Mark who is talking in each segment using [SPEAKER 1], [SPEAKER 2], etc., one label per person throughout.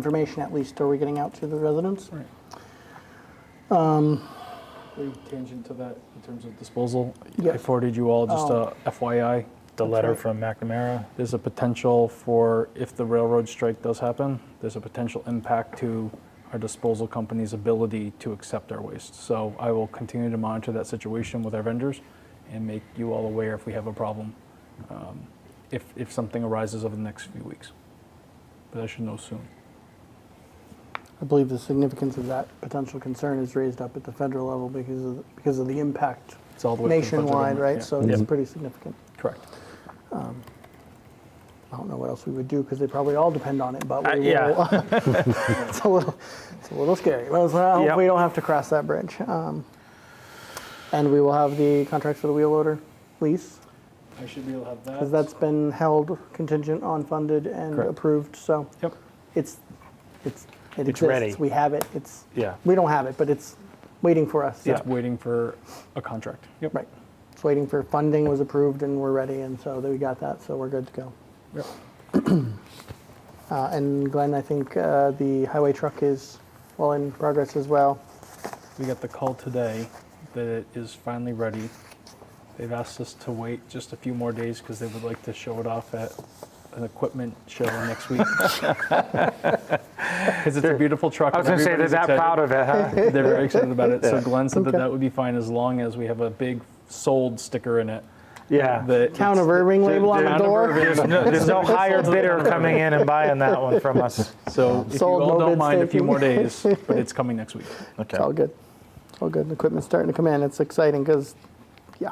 [SPEAKER 1] information at least are we getting out to the residents?
[SPEAKER 2] Right.
[SPEAKER 1] Um,
[SPEAKER 2] Tangent to that in terms of disposal,
[SPEAKER 1] Yeah.
[SPEAKER 2] I forwarded you all just
[SPEAKER 1] Oh.
[SPEAKER 2] a FYI, the
[SPEAKER 1] That's
[SPEAKER 2] letter
[SPEAKER 1] right.
[SPEAKER 2] from McNamara. There's a potential for, if the railroad strike does happen, there's a potential impact to our disposal company's ability to accept our waste. So I will continue to monitor that situation with our vendors and make you all aware if we have a problem, um, if, if something arises over the next few weeks. But I should know soon.
[SPEAKER 1] I believe the significance of that potential concern is raised up at the federal level because of, because of the impact
[SPEAKER 2] It's all the way. to the federal
[SPEAKER 1] nationwide,
[SPEAKER 2] government,
[SPEAKER 1] right?
[SPEAKER 2] yeah.
[SPEAKER 1] So it's
[SPEAKER 3] Yep.
[SPEAKER 1] pretty significant.
[SPEAKER 2] Correct.
[SPEAKER 1] I don't know what else we would do because they probably all depend on it, but we
[SPEAKER 2] Uh,
[SPEAKER 1] will.
[SPEAKER 2] yeah.
[SPEAKER 1] it's a little, it's a little scary. Well, so I hope
[SPEAKER 2] Yep.
[SPEAKER 1] we don't have to cross that bridge. Um, and we will have the contracts for the wheel loader lease
[SPEAKER 2] I should be able to have that.
[SPEAKER 1] because that's been held contingent on funded and
[SPEAKER 2] Correct.
[SPEAKER 1] approved. So
[SPEAKER 2] Yep.
[SPEAKER 1] it's it's it
[SPEAKER 3] It's
[SPEAKER 1] exists.
[SPEAKER 3] ready.
[SPEAKER 1] We have it. It's
[SPEAKER 3] Yeah.
[SPEAKER 1] we don't have it, but it's waiting for us.
[SPEAKER 2] It's waiting for a contract. Yep.
[SPEAKER 1] Right. It's waiting for funding was approved and we're ready, and so we got that, so we're good to go.
[SPEAKER 2] Yep.
[SPEAKER 1] Uh, and Glenn, I think uh, the highway truck is well in progress as well.
[SPEAKER 2] We got the call today that it is finally ready. They've asked us to wait just a few more days because they would like to show it off at an equipment show next week. Because it's a beautiful truck.
[SPEAKER 3] I was going to say, they're that proud of it, huh?
[SPEAKER 2] They're very excited about it. So
[SPEAKER 3] Yeah.
[SPEAKER 2] Glenn said that that would be fine as long as we have a big sold sticker in it.
[SPEAKER 3] Yeah.
[SPEAKER 2] that
[SPEAKER 1] Town of
[SPEAKER 2] it's-
[SPEAKER 1] Irving label on the
[SPEAKER 2] Town of
[SPEAKER 1] door.
[SPEAKER 2] Irving.
[SPEAKER 3] There's no, there's no higher bidder coming in and buying that one from us.
[SPEAKER 2] So if
[SPEAKER 1] Sold,
[SPEAKER 2] you
[SPEAKER 1] no
[SPEAKER 2] all
[SPEAKER 1] bid
[SPEAKER 2] don't mind a few
[SPEAKER 1] staking.
[SPEAKER 2] more days, but it's coming next week.
[SPEAKER 1] It's all good. It's all good. The equipment's starting to come in. It's exciting because, yeah,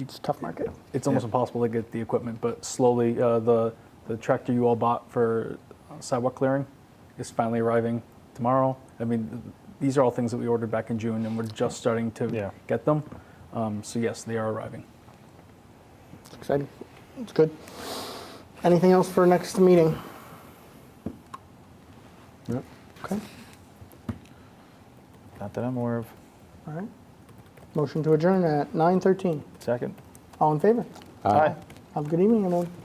[SPEAKER 1] it's a tough market.
[SPEAKER 2] It's almost impossible to get the equipment, but slowly uh, the the tractor you all bought for uh, sidewalk clearing is finally arriving tomorrow. I mean, th- these are all things that we ordered back in June, and we're just starting to
[SPEAKER 3] Yeah.
[SPEAKER 2] get them. Um, so yes, they are arriving.
[SPEAKER 1] It's exciting. It's good. Anything else for next meeting? Okay.
[SPEAKER 3] Not that I'm aware of.
[SPEAKER 1] All right. Motion to adjourn at 9:13.
[SPEAKER 3] Second.
[SPEAKER 1] All in favor?
[SPEAKER 3] Aye.
[SPEAKER 1] Have a good evening, everyone.